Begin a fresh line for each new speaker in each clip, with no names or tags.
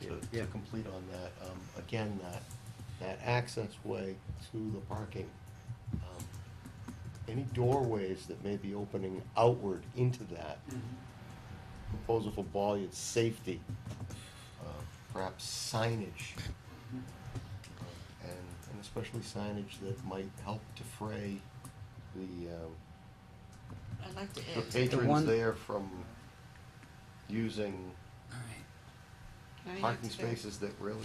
to,
Yeah.
to complete on that. Um, Again, that, that access way to the parking, um, any doorways that may be opening outward into that,
Mm-hmm.
proposal for bolliard safety, uh, perhaps signage,
Mm-hmm.
uh, and, and especially signage that might help defray the, um,
I'd like
the
to add, to-
The
patrons
one-
there from using
All right.
can I add
parking
to that?
spaces that really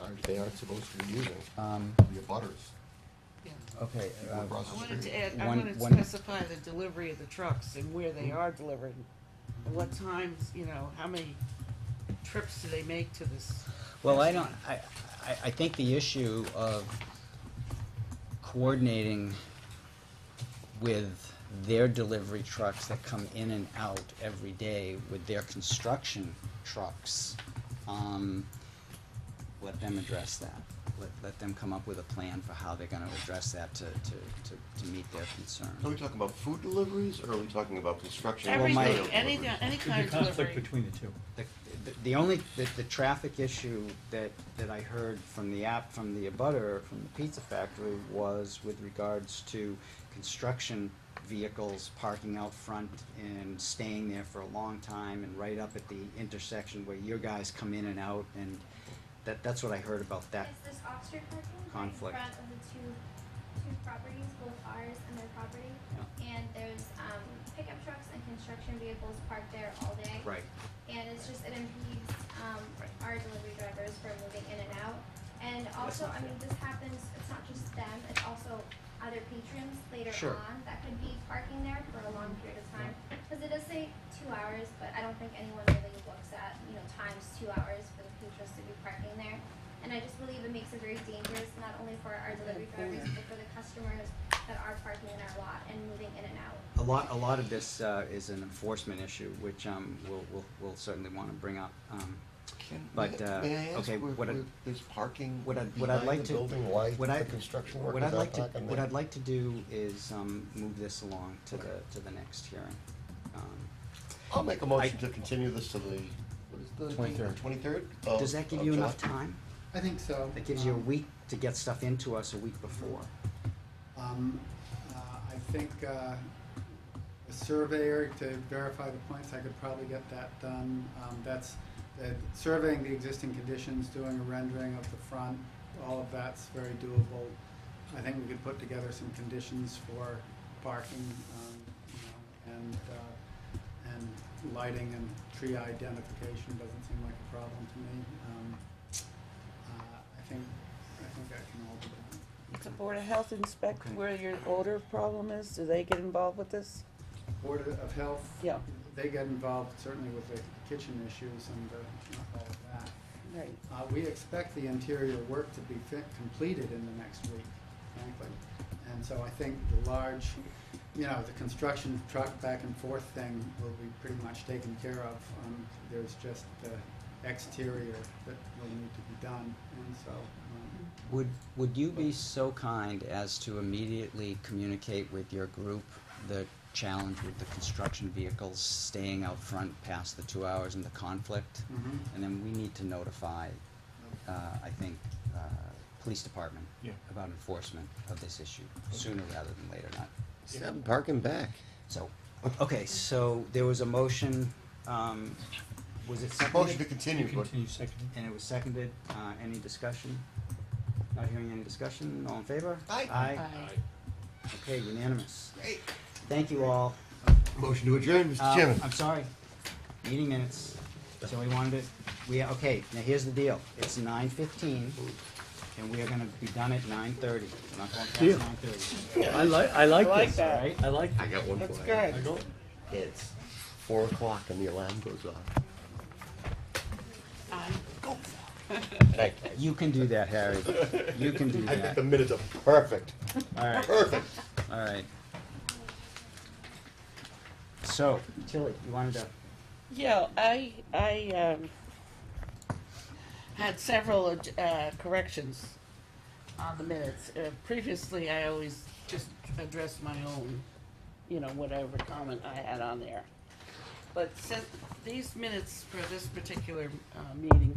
aren't, they aren't supposed to be using,
Um,
the abutters.
Yeah.
okay,
People
uh,
across
I
the
wanted to
street.
add, I
One-
wanted to
one- Mm-hmm.
specify the delivery of the trucks and where they are delivered. and What times, you know, how many trips do they make to this?
well, I don't, I, I, I think the issue of coordinating with their delivery trucks that come in and out every day with their construction trucks, um, let them address that. Let, let them come up with a plan for how they're gonna address that to, to, to, to meet their concern.
Are we talking about food deliveries, or are we talking about construction?
Well, my-
Everything,
material
any,
deliveries?
any
Could be
kind of
conflict
delivery.
between the two.
The, the- the only, the, the traffic issue that, that I heard from the app, from the abutter, from the pizza factory, was with regards to construction vehicles parking out front and staying there for a long time and right up at the intersection where your guys come in and out, and that, that's what I heard about that.
Is this off-street parking right
conflict.
in front of the two, two properties, both ours and their property? And there's, um, pickup trucks and construction vehicles parked there all day.
Right,
And it's just, it impedes, um,
Right.
our delivery drivers from moving in and out. And also,
not
I mean, this happens, it's not just them, it's also other patrons later
Sure.
on that could be parking there for a long period of time. Cause it does say two hours, but I don't think anyone really looks at, you know, times two hours for the patrons to be parking there. And I just believe it makes it very dangerous, not only for our delivery drivers, but for the customers that are parking in our lot and moving in and out.
a lot, a lot of this, uh, is an enforcement issue, which, um, we'll, we'll, we'll certainly wanna bring up, um,
Can-
But,
may-
uh,
may I ask
okay,
where-
what I-
where There's parking
what I-
behind
what I'd like
the
to-
building, why
what I-
the construction
What
workers
I'd
are
like to,
parking
what
there?
I'd like to do is, um, move this along to the,
Okay.
to the next hearing. Um,
I'll make a motion to continue this to the, what is the?
23rd.
Twenty-third?
Does that
oh,
give you enough time?
I think so.
That gives you a
Um,
week to get stuff into us a week before.
Um, uh, I think, uh, a surveyor to verify the points, I could probably get that done. Um, that's, that surveying the existing conditions, doing a rendering of the front, all of that's very doable. I think we could put together some conditions for parking, um, you know, and, uh, and lighting and tree identification doesn't seem like a problem to me. Um, uh, I think, I think I can all do that.
Does the Board of Health inspect
Okay.
where your odor problem is? Do they get involved with this?
Board of Health.
Yeah.
They got involved certainly with the kitchen issues and the, all of that.
Right.
Uh, we expect the interior work to be fit, completed in the next week, frankly. And so I think the large, you know, the construction truck back and forth thing will be pretty much taken care of. Um, there's just the exterior that will need to be done, and so, um,
Would, would you be so kind as to immediately communicate with your group the challenge with the construction vehicles staying out front past the two hours and the conflict?
mhm.
And then we need to notify, uh, I think, uh, police department
Yeah.
about enforcement of this issue sooner rather than later, not
Seven, parking back.
So, okay, so there was a motion, um, was it
Motion to
seconded?
continue, but
Continue second.
And it was seconded, uh, any discussion? Not hearing any discussion, all in favor?
Aye.
Aye, okay, unanimous.
Great.
Thank you all.
Motion to adjourn, Mr.
Um,
Chairman.
I'm sorry, meeting minutes, so we wanted to, we, okay, now here's the deal, it's nine fifteen, and we are gonna be done at nine thirty, we're not going
Yeah.
past nine thirty.
I like, I like
I like
this.
that.
Alright,
I like
I got one
That's
for you.
good.
It's four o'clock and the alarm goes off.
Aye.
Thank you.
you can do that, Harry, you can do
I think
that,
the minutes are perfect,
alright.
perfect.
All right. So, Tilly, you wanted to,
Yeah, I, I, um, had several, uh, corrections on the minutes. Uh, previously, I always just addressed my own, you know, whatever comment I had on there. But since these minutes for this particular, uh, meeting